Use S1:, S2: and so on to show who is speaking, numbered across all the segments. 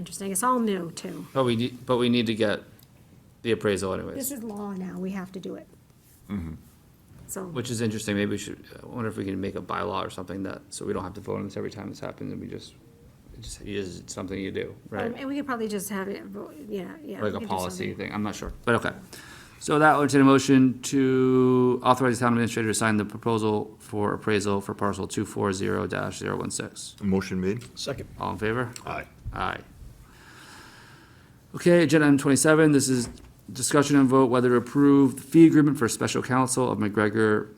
S1: Interesting, it's all new too.
S2: But we, need- but we need to get the appraisal anyways,
S1: This is law now, we have to do it.
S2: Mm-hmm.
S1: So, um,
S2: which is interesting. Maybe we should, I wonder if we can make a bylaw or something that, so we don't have to vote on this every time this happens and we just, it just is something you do,
S1: um,
S2: right?
S1: and we could probably just have it, vo- yeah, yeah. we
S2: Like
S1: could
S2: a
S1: do
S2: policy
S1: something.
S2: thing, I'm not sure, but okay. So that would entertain a motion to authorize the town administrator to sign the proposal for appraisal for parcel two four zero dash zero one six.
S3: Motion made.
S4: Second.
S2: All in favor?
S3: Aye.
S2: Aye. Okay, agenda item twenty-seven, this is discussion and vote whether to approve the fee agreement for special counsel of McGregor,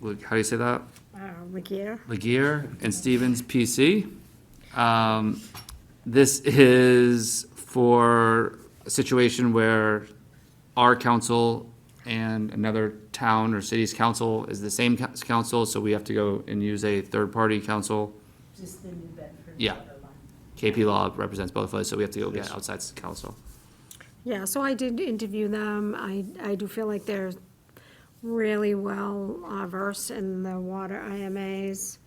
S2: like, how do you say that?
S1: Uh, Regier,
S2: Laguerre and Stevens PC. Um, This is for a situation where our council and another town or city's council is the same cou- council, so we have to go and use a third-party council.
S5: Just the New Bedford.
S2: Yeah.
S5: border line.
S2: KP Law represents both of us, so we have to go get outside counsel.
S1: yeah, so I did interview them, I, I do feel like they're really well uh, versed in the water IMAs.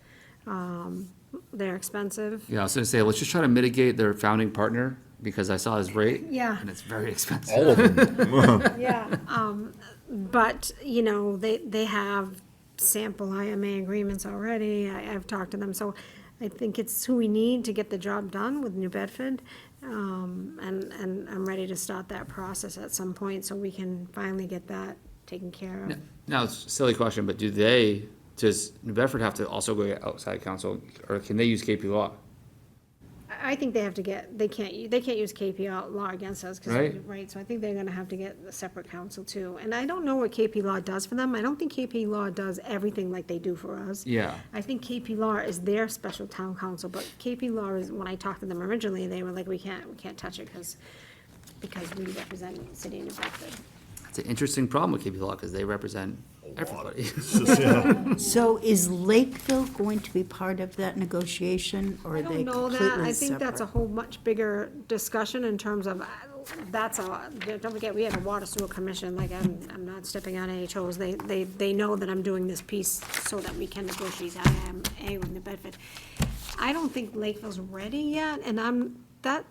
S1: Um, They're expensive,
S2: Yeah, I was gonna say, let's just try to mitigate their founding partner, because I saw his rate.
S1: Yeah.
S2: And it's very expensive.
S3: All of them.
S1: Yeah, um, but, you know, they, they have sample IMA agreements already, I, I've talked to them, so I think it's who we need to get the job done with New Bedford. Um, and, and I'm ready to start that process at some point, so we can finally get that taken care of.
S2: Now, it's a silly question, but do they, does New Bedford have to also go get outside counsel, or can they use KP Law?
S1: I, I think they have to get, they can't, they can't use KP law against us, cause,
S2: Right.
S1: right, so I think they're gonna have to get a separate counsel too. And I don't know what KP law does for them, I don't think KP law does everything like they do for us.
S2: Yeah.
S1: I think KP Law is their special town council, but KP Law is, when I talked to them originally, they were like, we can't, we can't touch it because, because we represent the city of New Bedford.
S2: It's an interesting problem with KP Law, because they represent everybody.
S5: So is Lakeville going to be part of that negotiation, or
S1: I
S5: are
S1: don't
S5: they
S1: know that, I
S5: completely
S1: think that's a
S5: separate?
S1: whole much bigger discussion in terms of, uh, that's a, don't forget, we have a water sewer commission, like, I'm, I'm not stepping on any toes. They, they, they know that I'm doing this piece so that we can negotiate IMA with New Bedford. I don't think Lakeville's ready yet, and I'm, that,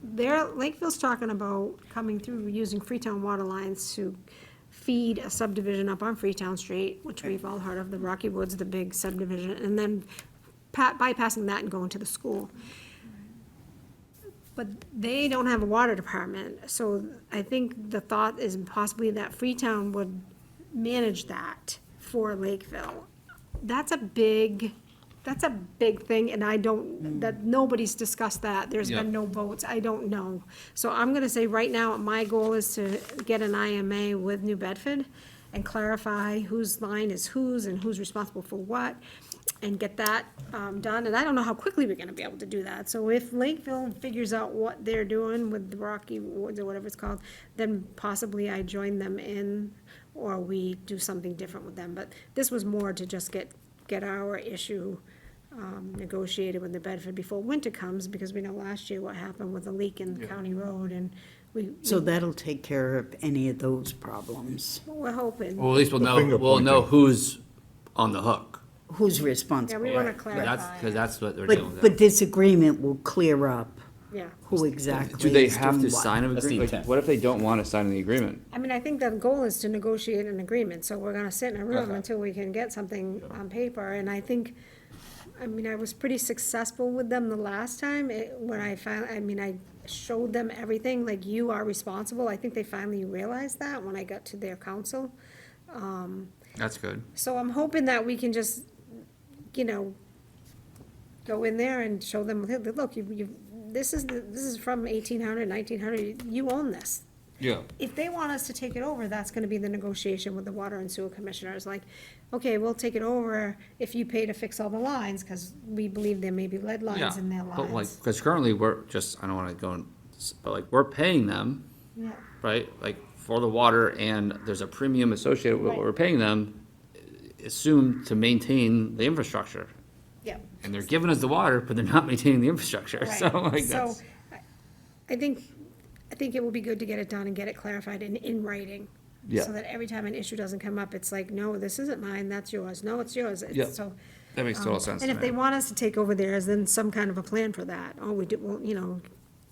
S1: they're, Lakeville's talking about coming through, using Freetown water lines to feed a subdivision up on Freetown Street, which we've all heard of, the Rocky Woods, the big subdivision, and then pa- bypassing that and going to the school. But they don't have a water department, so I think the thought is possibly that Freetown would manage that for Lakeville. That's a big, that's a big thing, and I don't, that, nobody's discussed that, there's
S2: Yeah.
S1: been no votes, I don't know. So I'm gonna say right now, my goal is to get an IMA with New Bedford and clarify whose line is whose and who's responsible for what, and get that, um, done, and I don't know how quickly we're gonna be able to do that. So if Lakeville figures out what they're doing with the Rocky Woods or whatever it's called, then possibly I join them in, or we do something different with them, but this was more to just get, get our issue, um, negotiated with the Bedford before winter comes, because we know last year what happened with the leak in the county road, and we,
S5: So that'll take care of any of those problems.
S1: we're hoping.
S2: Well, at least we'll know,
S3: finger
S2: we'll know who's on the hook.
S5: Who's
S1: Yeah,
S5: responsible?
S1: we wanna
S2: That's,
S1: clarify,
S2: because that's what they're dealing
S5: But,
S2: with.
S5: but this agreement will clear up
S1: yeah.
S5: who exactly
S2: Do they
S5: is
S2: have to
S5: doing what.
S2: sign an
S4: That's the
S2: agreement? Like,
S4: intent.
S2: What if they don't want to sign the agreement?
S1: I mean, I think the goal is to negotiate an agreement, so we're gonna sit in a room
S2: Okay.
S1: until we can get something on paper, and I think, I mean, I was pretty successful with them the last time, it, when I finally, I mean, I showed them everything, like, you are responsible, I think they finally realized that when I got to their council.
S2: That's good.
S1: So I'm hoping that we can just, you know, go in there and show them, look, you, you, this is, the- this is from 1800, 1900. you own this,
S2: Yeah.
S1: if they want us to take it over, that's gonna be the negotiation with the water and sewer commissioners, like, okay, we'll take it over if you pay to fix all the lines, cause we believe there may be lead
S2: Yeah.
S1: lines in their
S2: But like,
S1: lines.
S2: because currently, we're just, I don't want to go, and s- but like, we're paying them.
S1: Yeah.
S2: right? Like for the water and there's a premium associated with what we're paying them, assumed to maintain the infrastructure.
S1: Yeah.
S2: And they're giving us the water, but they're not maintaining the infrastructure,
S1: Right.
S2: so like
S1: So,
S2: that's.
S1: I- I think, I think it will be good to get it done and get it clarified in, in writing.
S2: Yeah.
S1: So that every time an issue doesn't come up, it's like, no, this isn't mine, that's yours, no, it's yours, It's
S2: Yeah.
S1: so.
S2: That makes
S1: um, And if they want us to take over theirs, then some kind of a plan for that, oh, we do, well, you know,